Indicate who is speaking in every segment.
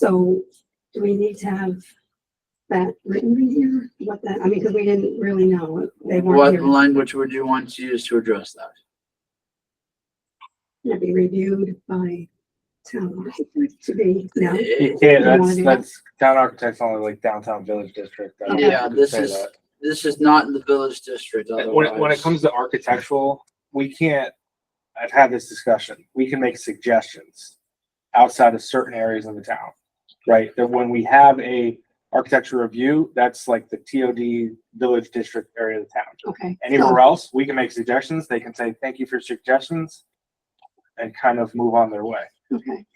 Speaker 1: So do we need to have that written in here? What that, I mean, because we didn't really know. They
Speaker 2: What
Speaker 1: weren't here.
Speaker 2: language would you want to use to address that?
Speaker 1: Can it be reviewed by town architect to be, no?
Speaker 2: It-
Speaker 3: Yeah,
Speaker 1: You wanna
Speaker 3: that's,
Speaker 1: do
Speaker 3: that's town architects only like downtown village district. I don't know if
Speaker 2: Yeah,
Speaker 3: you could
Speaker 2: this
Speaker 3: say
Speaker 2: is-
Speaker 3: that.
Speaker 2: This is not in the village district
Speaker 4: Uh,
Speaker 3: And When, it- when it
Speaker 2: otherwise.
Speaker 3: comes to architectural, we can't, I've had this discussion, we can make suggestions outside of certain areas of the town, right? That when we have a architecture review, that's like the TOD village district area of the town.
Speaker 1: Okay. Oh,
Speaker 3: Anywhere else, we can make suggestions, they can say, thank you for your suggestions, and kind of move on their way.
Speaker 1: So- Okay.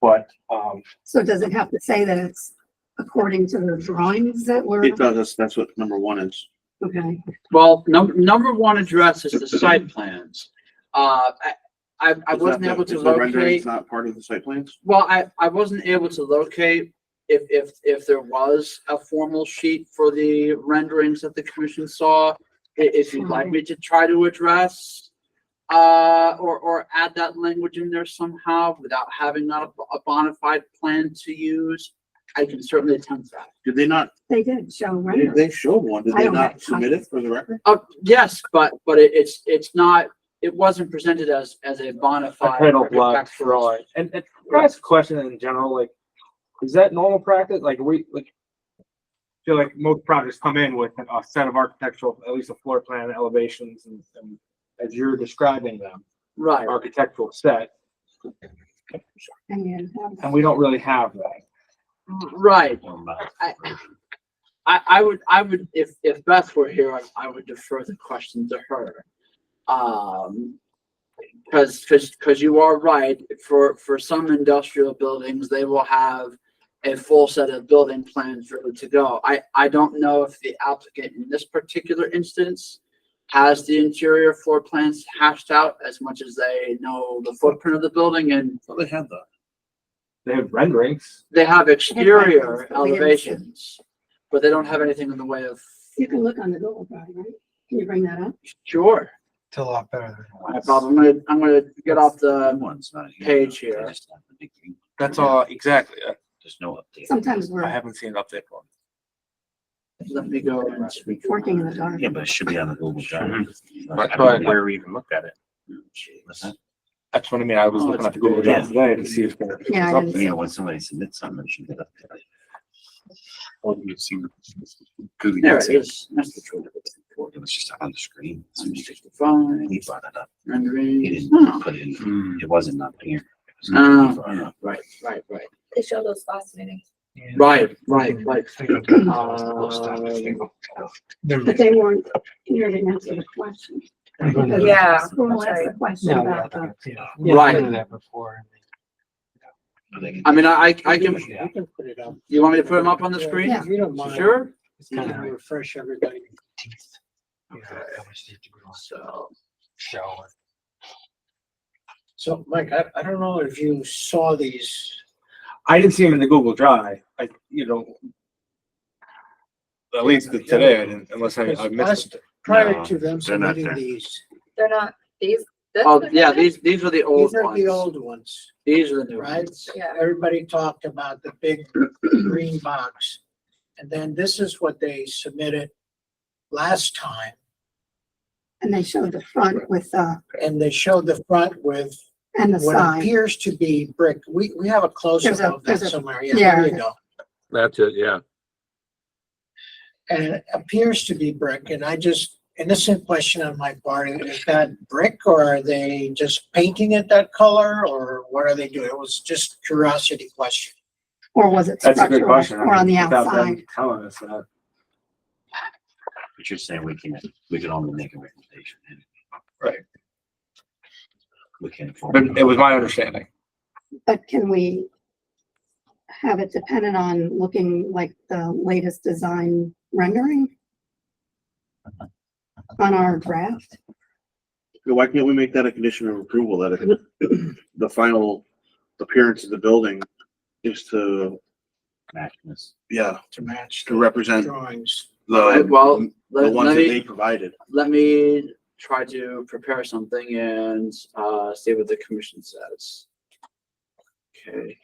Speaker 3: But, um,
Speaker 1: So does it have to say that it's according to the drawings that were,
Speaker 4: It does, that's, that's what number one is.
Speaker 1: okay?
Speaker 2: Well, number, number one addresses the site plans. Uh, I, I, I
Speaker 4: It's
Speaker 2: wasn't
Speaker 4: not the-
Speaker 2: able to
Speaker 4: it's the rendering,
Speaker 2: locate.
Speaker 4: It's not part of the site plans?
Speaker 2: Well, I, I wasn't able to locate if, if, if there was a formal sheet for the renderings that the commission saw. i- If you'd like me to try to address, uh, or, or add that language in there somehow without having a, a bona fide plan to use, I can certainly attempt that.
Speaker 4: Did they not,
Speaker 1: They did show
Speaker 4: they-
Speaker 1: rendering.
Speaker 4: they showed one, did
Speaker 1: I
Speaker 4: they
Speaker 1: don't have
Speaker 4: not
Speaker 1: a
Speaker 4: submit it for the record?
Speaker 2: Oh, yes, but, but it, it's, it's not, it wasn't presented as, as a bona
Speaker 3: I
Speaker 2: fide.
Speaker 3: kind of like
Speaker 2: architectural-
Speaker 3: drawing. And, and can I ask a question in general, like, is that normal practice? Like, we, like, feel like most projects come in with a set of architectural, at least a floor plan elevations and, and as you're describing them,
Speaker 2: Right,
Speaker 3: architectural set,
Speaker 1: And you have
Speaker 3: and we don't really have that.
Speaker 2: right. I, I, I would, I would, if, if Beth were here, I- I would defer the question to her. Um, cause, cause, cause you are right, for, for some industrial buildings, they will have a full set of building plans ready to go. I, I don't know if the applicant in this particular instance has the interior floor plans hashed out as much as they know the footprint of the building and
Speaker 4: Well, they had that.
Speaker 3: They have renderings.
Speaker 2: they have exterior
Speaker 1: plans, but we didn't see.
Speaker 2: elevations, but they don't have anything in the way of.
Speaker 1: You can look on the Google Drive, right? Can you bring that up?
Speaker 2: Sure.
Speaker 5: It's a lot better than it
Speaker 2: No
Speaker 5: was.
Speaker 2: problem. I'm gonna, I'm gonna get off
Speaker 4: That
Speaker 2: the,
Speaker 4: one's not here.
Speaker 2: Page here.
Speaker 4: They just have the big green one.
Speaker 3: That's all, exactly. I-
Speaker 4: There's no update.
Speaker 1: Sometimes we're
Speaker 3: haven't seen an update one.
Speaker 2: let me go. and-
Speaker 1: working in the dark.
Speaker 4: Yeah, but it should be on the Google Drive.
Speaker 3: That's why-
Speaker 6: where we even looked at it.
Speaker 3: That's what I mean. I was
Speaker 2: Oh,
Speaker 3: looking
Speaker 2: it's
Speaker 3: at the Google
Speaker 4: good.
Speaker 3: Drive today to see if.
Speaker 1: Yeah, I didn't see
Speaker 4: Yeah, when somebody submits something, it should get updated.
Speaker 6: Well, you've seen. Google
Speaker 2: There
Speaker 6: Docs.
Speaker 2: it is. That's the truth.
Speaker 4: It was just on the screen.
Speaker 2: I'm sixty-five,
Speaker 4: He brought it up. He
Speaker 2: rendering.
Speaker 4: didn't put it in,
Speaker 6: Hmm.
Speaker 4: it wasn't up here. It was
Speaker 2: Oh.
Speaker 4: not brought up.
Speaker 2: Right, right, right,
Speaker 7: They show those last meeting.
Speaker 5: Yeah.
Speaker 2: right, right,
Speaker 5: Mm.
Speaker 2: right. Uh,
Speaker 5: They're-
Speaker 1: But they weren't here to answer the question. because
Speaker 7: Yeah, that's
Speaker 1: School asked the
Speaker 7: right.
Speaker 1: question
Speaker 5: No,
Speaker 1: about the
Speaker 5: yeah, yeah. Yeah, I've
Speaker 2: Right.
Speaker 5: done that before.
Speaker 2: I mean, I, I can,
Speaker 5: Yeah, I can put it up.
Speaker 2: you want me to put them up on the screen?
Speaker 5: If you don't mind.
Speaker 2: Sure.
Speaker 5: It's kind of refresh everybody's teeth. You know, how much they do on
Speaker 2: So,
Speaker 5: show.
Speaker 8: So, Mike, I, I don't know if you saw these,
Speaker 3: I didn't see him in the Google Drive. I, you know. At least the- today, I didn't, unless I, I missed it.
Speaker 8: prior to
Speaker 4: No,
Speaker 8: them
Speaker 4: they're not
Speaker 8: submitting
Speaker 4: there.
Speaker 8: these,
Speaker 7: They're not, these. this
Speaker 2: oh,
Speaker 7: one
Speaker 2: yeah,
Speaker 7: here?
Speaker 2: these, these are the old
Speaker 8: these are the
Speaker 2: ones.
Speaker 8: old ones,
Speaker 2: These are the new
Speaker 8: right?
Speaker 2: ones.
Speaker 7: Yeah.
Speaker 8: Everybody talked about the big green box. And then this is what they submitted last time,
Speaker 1: And they showed the front with, uh,
Speaker 8: and they showed the front with
Speaker 1: and the
Speaker 8: what
Speaker 1: side.
Speaker 8: appears to be brick. We, we have a
Speaker 1: There's a-
Speaker 8: close-up of that
Speaker 1: there's a-
Speaker 8: somewhere, yeah, there you
Speaker 1: yeah.
Speaker 8: go.
Speaker 9: That's it, yeah.
Speaker 8: And it appears to be brick, and I just, innocent question on my part, is that brick or are they just painting it that color or what are they doing? It was just curiosity question.
Speaker 1: Or was it
Speaker 3: That's a good
Speaker 1: structural
Speaker 3: question. I
Speaker 1: or on the
Speaker 3: mean, without them
Speaker 1: outside?
Speaker 3: Telling us that.
Speaker 4: But you're saying we can, we can only make a recommendation.
Speaker 3: Right.
Speaker 4: We can't.
Speaker 3: But it was my understanding.
Speaker 1: But can we have it dependent on looking like the latest design rendering? On our draft?
Speaker 4: Why can't we make that a condition of approval that it- the final appearance of the building is to,
Speaker 6: Match this.
Speaker 4: yeah,
Speaker 8: to match
Speaker 4: to
Speaker 8: the
Speaker 4: represent
Speaker 8: drawings.
Speaker 2: Right, Well,
Speaker 4: the, the
Speaker 2: let,
Speaker 4: ones
Speaker 2: let
Speaker 4: that
Speaker 2: me.
Speaker 4: they provided.
Speaker 2: let me try to prepare something and uh, see what the commission says. Okay,